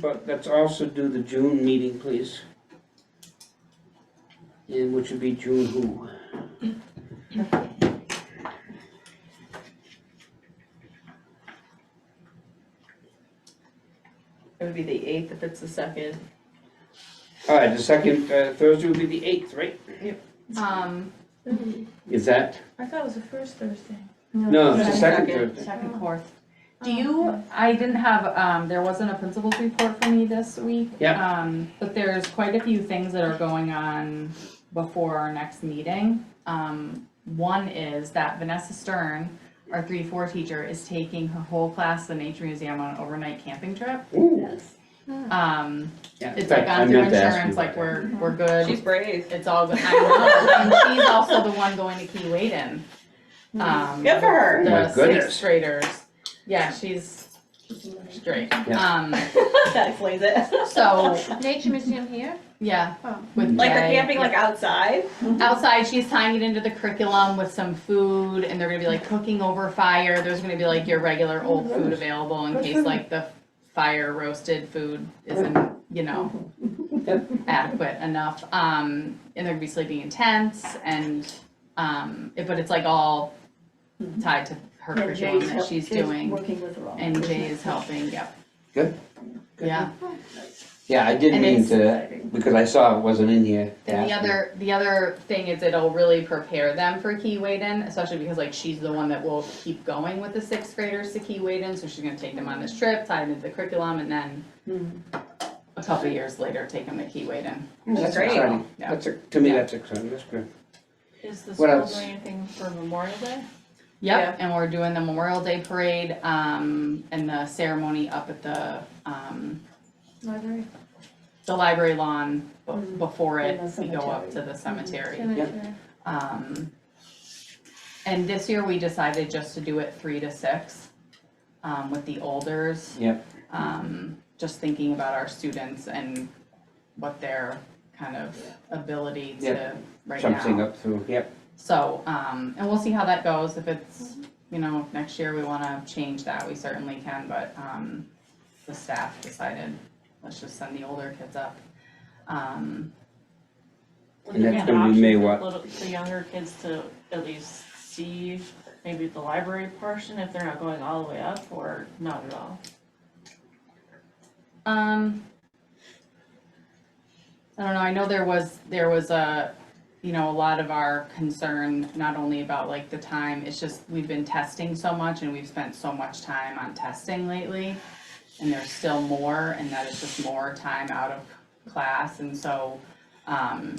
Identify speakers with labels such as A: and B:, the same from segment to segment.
A: But let's also do the June meeting, please. And which would be June who?
B: It would be the eighth if it's the second.
A: All right, the second uh, Thursday would be the eighth, right?
C: Um,
A: Is that?
D: Mm-hmm. I thought it was the first Thursday.
A: No, it's the second
B: Second.
A: Thursday.
C: second, fourth. Do
D: Oh,
C: you, I didn't have, um, there wasn't a principal's report for me this week.
A: Yeah.
C: Um, but there's quite a few things that are going on before our next meeting. Um, one is that Vanessa Stern, our three, four teacher, is taking her whole class to the Nature Museum on an overnight camping trip.
A: Ooh,
C: Um,
A: yeah, in
C: it's like
A: fact, I
C: on through
A: meant to ask you
C: insurance,
A: about
C: like
A: that.
C: we're, we're good.
B: She's brave.
C: It's all good, I know, and she's also the one going to Key Waden. Um,
B: Good for her.
A: Oh my
C: the
A: goodness.
C: sixth graders. Yeah, she's she's great.
A: Yeah.
C: Um,
B: That explains it.
C: so
D: Nature Museum here?
C: yeah,
D: Oh.
C: with
B: Like they're
C: Jay,
B: camping like outside.
C: outside. She's tying it into the curriculum with some food, and they're gonna be like cooking over fire. There's gonna be like your regular
E: Oh
C: old food available in
A: Good for
C: case
A: them.
C: like the fire roasted food isn't you know adequate enough. Um, and they're gonna be sleeping in tents, and um, it, but it's like all tied to her
E: Yeah,
C: curriculum
E: Jay's
C: that
E: help-
C: she's
E: Jay's
C: doing.
E: Working with her on.
C: And
E: it.
C: Jay is helping, yep.
A: Good. Good.
C: Yeah,
A: Yeah, I didn't
C: And
A: mean
C: it's-
A: to, because I saw it wasn't in here. to
C: and the
A: ask you.
C: other, the other thing is it'll really prepare them for Key Waden, especially because like she's the one that will keep going with the sixth graders to Key Waden, so she's gonna take them on this trip, tie it into the curriculum, and then
E: Hmm.
C: a couple years later, take them to Key Waden.
A: That's
B: Great.
A: exciting.
C: Yeah.
A: That's, a- to me,
C: Yeah.
A: that's exciting, that's good.
D: Is the
A: What
D: school
A: else?
D: doing anything for Memorial Day?
C: Yep, and we're doing the Memorial Day Parade, um, and the ceremony up at the, um,
D: Library?
C: the library lawn be- before it,
E: And Hmm. the
C: we go up to
E: cemetery.
C: the cemetery.
D: Cemetery.
C: Um, and this year we decided just to do it three to six, um, with the olders.
A: Yep.
C: Um, just thinking about our students and what their kind of ability to, right now.
A: Something up through, yep,
C: So, um, and we'll see how that goes, if it's, you know, if next year we wanna change that, we certainly can, but, um, the staff decided, let's just send the older kids up. Um,
A: And that's gonna be May what?
F: The younger kids to at least see maybe the library portion if they're not going all the way up or not at all.
C: Um, I don't know, I know there was, there was a, you know, a lot of our concern, not only about like the time, it's just, we've been testing so much and we've spent so much time on testing lately. And there's still more, and that is just more time out of class, and so, um,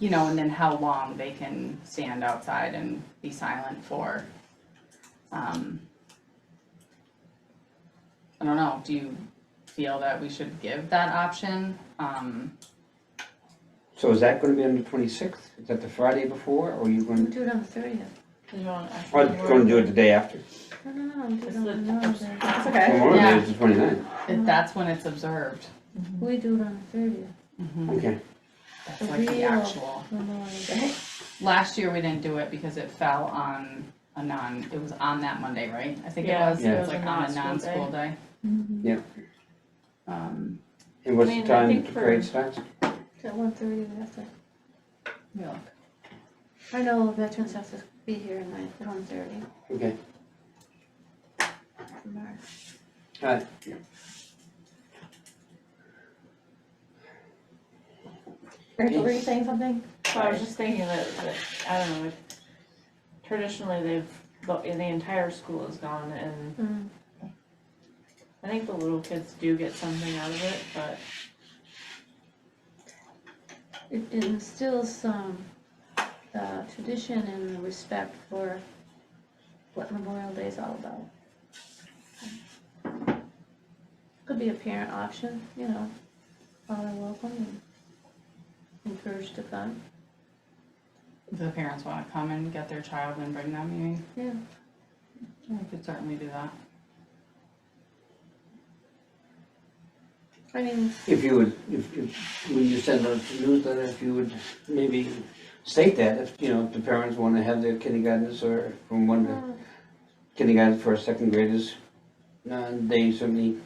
C: you know, and then how long they can stand outside and be silent for. Um, I don't know, do you feel that we should give that option? Um,
A: so is that gonna be on the twenty-sixth? Is that the Friday before, or you
D: We
A: gonna,
D: do it on the thirtieth.
F: Do you want actually
A: I'm
F: work?
A: Oh, gonna do it the day after?
D: No, no, no, we do it
F: It's
D: on
F: the-
D: Memorial Day.
B: It's okay.
A: Memorial Day
C: Yeah.
A: is the 29th.
C: if that's when it's observed.
D: We do it on the thirtieth,
C: Mhm.
A: okay.
C: That's like the
D: Real.
C: actual,
D: Memorial Day.
C: last year we didn't do it because it fell on a non, it was on that Monday, right? I think it
F: Yeah,
C: was,
A: Yeah.
C: it was
F: it was
C: like
F: a
C: on a
F: non-school
C: non-school day.
D: Mhm.
C: Um,
A: And what's
F: I
A: the
F: mean, I
A: time
F: think
A: that the
F: for-
A: parade starts?
D: It's at one thirty, we have to,
C: yeah.
D: I know veterans have to be here at night, at one thirty
A: Okay.
D: for March.
A: Alright.
E: Rachel, were you saying something?
F: So I was just thinking that, that, I don't know, if traditionally they've, the, the entire school is gone and
D: Mm.
F: I think the little kids do get something out of it, but
D: It it instills some, uh, tradition and the respect for what Memorial Day is all about. Could be a parent option, you know, all are welcome and encouraged to come.
C: If the parents wanna come and get their child and bring them, you mean?
D: Yeah.
C: Yeah, we could certainly do that.
D: I mean,
A: If you would, if, if, when you send out the newsletter, if you would maybe state that, if, you know, if the parents wanna have their kindergartners or from one to kindergarten for second graders, uh, they certainly